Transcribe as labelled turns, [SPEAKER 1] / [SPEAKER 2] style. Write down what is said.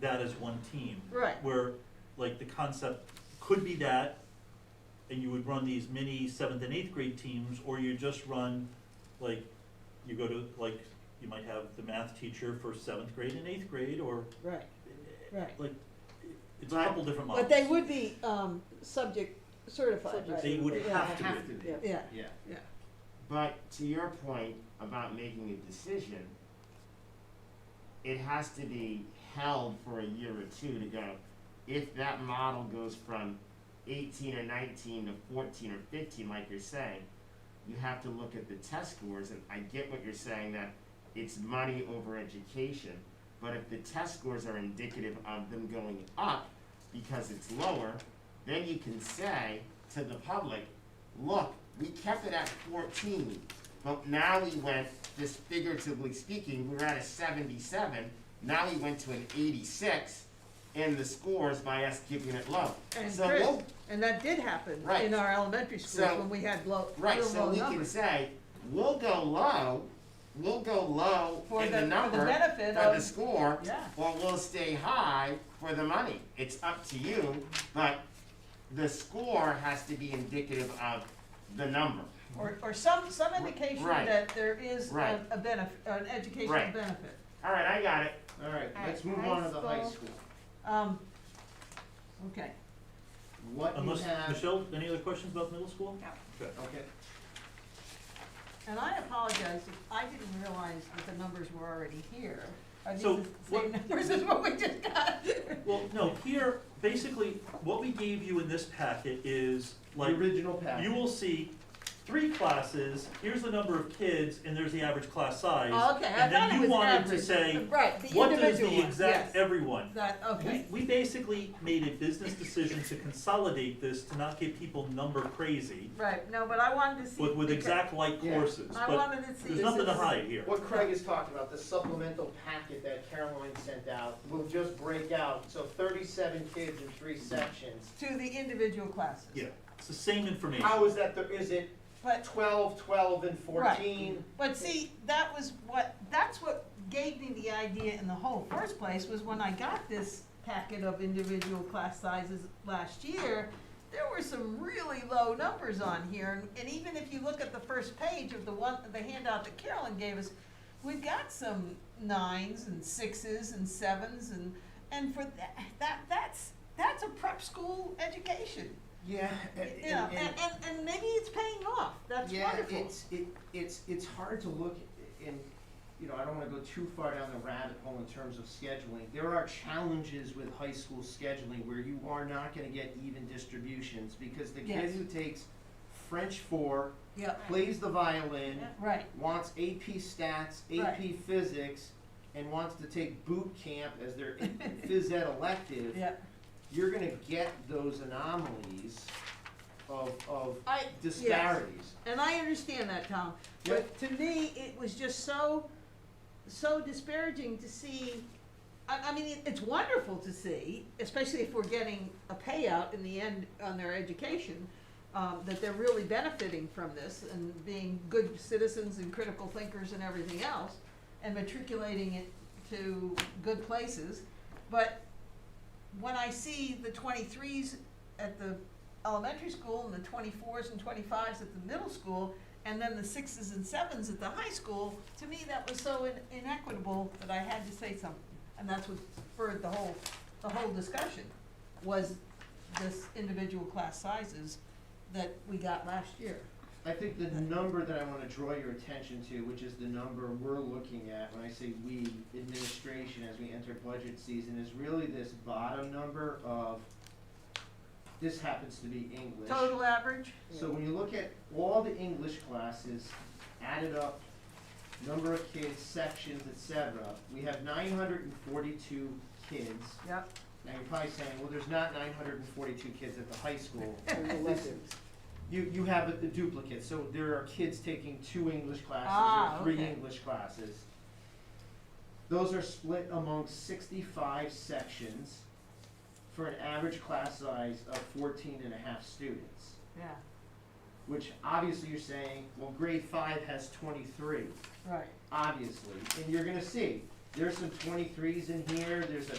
[SPEAKER 1] that as one team.
[SPEAKER 2] Right.
[SPEAKER 1] Where, like, the concept could be that, and you would run these mini seventh and eighth grade teams, or you just run, like, you go to, like, you might have the math teacher for seventh grade and eighth grade, or,
[SPEAKER 2] Right, right.
[SPEAKER 1] like, it's a couple different models.
[SPEAKER 2] But they would be, um, subject certified,
[SPEAKER 3] Subject
[SPEAKER 2] right?
[SPEAKER 1] They would
[SPEAKER 2] Yeah,
[SPEAKER 1] have to
[SPEAKER 3] Have
[SPEAKER 1] be.
[SPEAKER 3] to be.
[SPEAKER 2] Yeah, yeah,
[SPEAKER 3] Yeah,
[SPEAKER 2] yeah.
[SPEAKER 3] but to your point about making a decision, it has to be held for a year or two to go, if that model goes from eighteen or nineteen to fourteen or fifteen, like you're saying, you have to look at the test scores, and I get what you're saying, that it's money over education, but if the test scores are indicative of them going up because it's lower, then you can say to the public, look, we kept it at fourteen, but now we went, just figuratively speaking, we were at a seventy-seven, now we went to an eighty-six in the scores by us keeping it low.
[SPEAKER 2] And
[SPEAKER 3] So
[SPEAKER 2] Chris,
[SPEAKER 3] we'll-
[SPEAKER 2] and that did happen
[SPEAKER 3] Right.
[SPEAKER 2] in our elementary schools
[SPEAKER 3] So-
[SPEAKER 2] when we had low,
[SPEAKER 3] Right,
[SPEAKER 2] real
[SPEAKER 3] so
[SPEAKER 2] low
[SPEAKER 3] we can
[SPEAKER 2] numbers.
[SPEAKER 3] say, we'll go low, we'll go low
[SPEAKER 2] For
[SPEAKER 3] in
[SPEAKER 2] the-
[SPEAKER 3] the
[SPEAKER 2] for the
[SPEAKER 3] number, for
[SPEAKER 2] benefit
[SPEAKER 3] the
[SPEAKER 2] of-
[SPEAKER 3] score,
[SPEAKER 2] Yeah.
[SPEAKER 3] or we'll stay high for the money. It's up to you, but the score has to be indicative of the number.
[SPEAKER 2] Or, or some, some indication
[SPEAKER 3] Right.
[SPEAKER 2] that there is a,
[SPEAKER 3] Right.
[SPEAKER 2] a benefit, an educational
[SPEAKER 3] Right.
[SPEAKER 2] benefit.
[SPEAKER 3] All right, I got it.
[SPEAKER 4] All right,
[SPEAKER 2] All
[SPEAKER 4] let's
[SPEAKER 2] right,
[SPEAKER 4] move
[SPEAKER 2] high
[SPEAKER 4] on to the high
[SPEAKER 2] school.
[SPEAKER 4] school.
[SPEAKER 2] Um, okay,
[SPEAKER 4] What you
[SPEAKER 1] Unless,
[SPEAKER 4] have, okay.
[SPEAKER 1] Michelle, any other questions about middle school?
[SPEAKER 2] and I apologize, if I didn't realize that the numbers were already here. Are these
[SPEAKER 1] So
[SPEAKER 2] the same
[SPEAKER 1] what-
[SPEAKER 2] numbers as what we just got?
[SPEAKER 1] Well, no, here, basically, what we gave you in this packet is,
[SPEAKER 4] The
[SPEAKER 1] like,
[SPEAKER 4] original package.
[SPEAKER 1] you will see three classes, here's the number of kids, and there's the average class size.
[SPEAKER 2] Oh, okay, I
[SPEAKER 1] And then
[SPEAKER 2] thought it
[SPEAKER 1] you
[SPEAKER 2] was
[SPEAKER 1] wanted to
[SPEAKER 2] average.
[SPEAKER 1] say,
[SPEAKER 2] Right, the
[SPEAKER 1] what does
[SPEAKER 2] individual
[SPEAKER 1] the
[SPEAKER 2] one,
[SPEAKER 1] exact
[SPEAKER 2] yes.
[SPEAKER 1] everyone?
[SPEAKER 2] That, okay,
[SPEAKER 1] We, we basically made a business decision to consolidate this, to not get people number crazy,
[SPEAKER 2] right, no, but I wanted to see.
[SPEAKER 1] with, with
[SPEAKER 2] because
[SPEAKER 1] exact like
[SPEAKER 4] Yeah.
[SPEAKER 1] courses,
[SPEAKER 2] I
[SPEAKER 1] but
[SPEAKER 2] wanted to see.
[SPEAKER 1] there's nothing to
[SPEAKER 2] this-
[SPEAKER 1] hide here.
[SPEAKER 4] What Craig is talking about, the supplemental packet that Caroline sent out, will just break out, so thirty-seven kids in three sections.
[SPEAKER 2] To the individual classes.
[SPEAKER 1] Yeah, it's the same information.
[SPEAKER 4] How is that, the- is it
[SPEAKER 2] But,
[SPEAKER 4] twelve, twelve, and
[SPEAKER 2] Right.
[SPEAKER 4] fourteen?
[SPEAKER 2] but see, that was what, that's what gave me the idea in the whole first place, was when I got this packet of individual class sizes last year, there were some really low numbers on here, and- and even if you look at the first page of the one, the handout that Carolyn gave us, we've got some nines and sixes and sevens and, and for that, that, that's, that's a prep school education.
[SPEAKER 5] Yeah, and,
[SPEAKER 2] You know, and, and, and maybe it's paying off, that's
[SPEAKER 5] yeah,
[SPEAKER 2] wonderful.
[SPEAKER 5] it's it, it's it's hard to look in. You know, I don't want to go too far down the rabbit hole in terms of scheduling. There are challenges with high school scheduling where you are not going to get even distributions because the
[SPEAKER 2] Yes.
[SPEAKER 5] kid who takes French four
[SPEAKER 2] Yeah,
[SPEAKER 5] plays the violin,
[SPEAKER 2] right,
[SPEAKER 5] wants AP stats, AP physics, and wants to take boot camp as their phys ed elective.
[SPEAKER 2] yeah.
[SPEAKER 5] You're going to get those anomalies of of
[SPEAKER 2] I, yes,
[SPEAKER 5] disparities.
[SPEAKER 2] and I understand that, Tom, but to me, it was just so, so disparaging to see. I, I mean, it, it's wonderful to see, especially if we're getting a payout in the end on their education, um, that they're really benefiting from this and being good citizens and critical thinkers and everything else, and matriculating it to good places, but when I see the twenty-threes at the elementary school and the twenty-fours and twenty-fives at the middle school, and then the sixes and sevens at the high school, to me, that was so in- inequitable that I had to say something. And that's what spurred the whole, the whole discussion, was this individual class sizes that we got last year.
[SPEAKER 5] I think the number that I wanna draw your attention to, which is the number we're looking at, when I say we, administration, as we enter budget season, is really this bottom number of, this happens to be English.
[SPEAKER 2] Total average,
[SPEAKER 5] So when you look at all the English classes added up, number of kids, sections, et cetera, we have nine hundred and forty-two kids.
[SPEAKER 2] yep,
[SPEAKER 5] Now you're probably saying, well, there's not nine hundred and forty-two kids at the high school.
[SPEAKER 4] There's electives.
[SPEAKER 5] You, you have a- the duplicate, so there are kids taking two English
[SPEAKER 2] Ah,
[SPEAKER 5] classes or three
[SPEAKER 2] okay.
[SPEAKER 5] English classes. Those are split among sixty-five sections for an average class size of 14 and a half students.
[SPEAKER 2] yeah,
[SPEAKER 5] Which obviously you're saying, well, grade five has twenty-three,
[SPEAKER 2] right.
[SPEAKER 5] obviously, and you're gonna see, there's some twenty-threes in here, there's a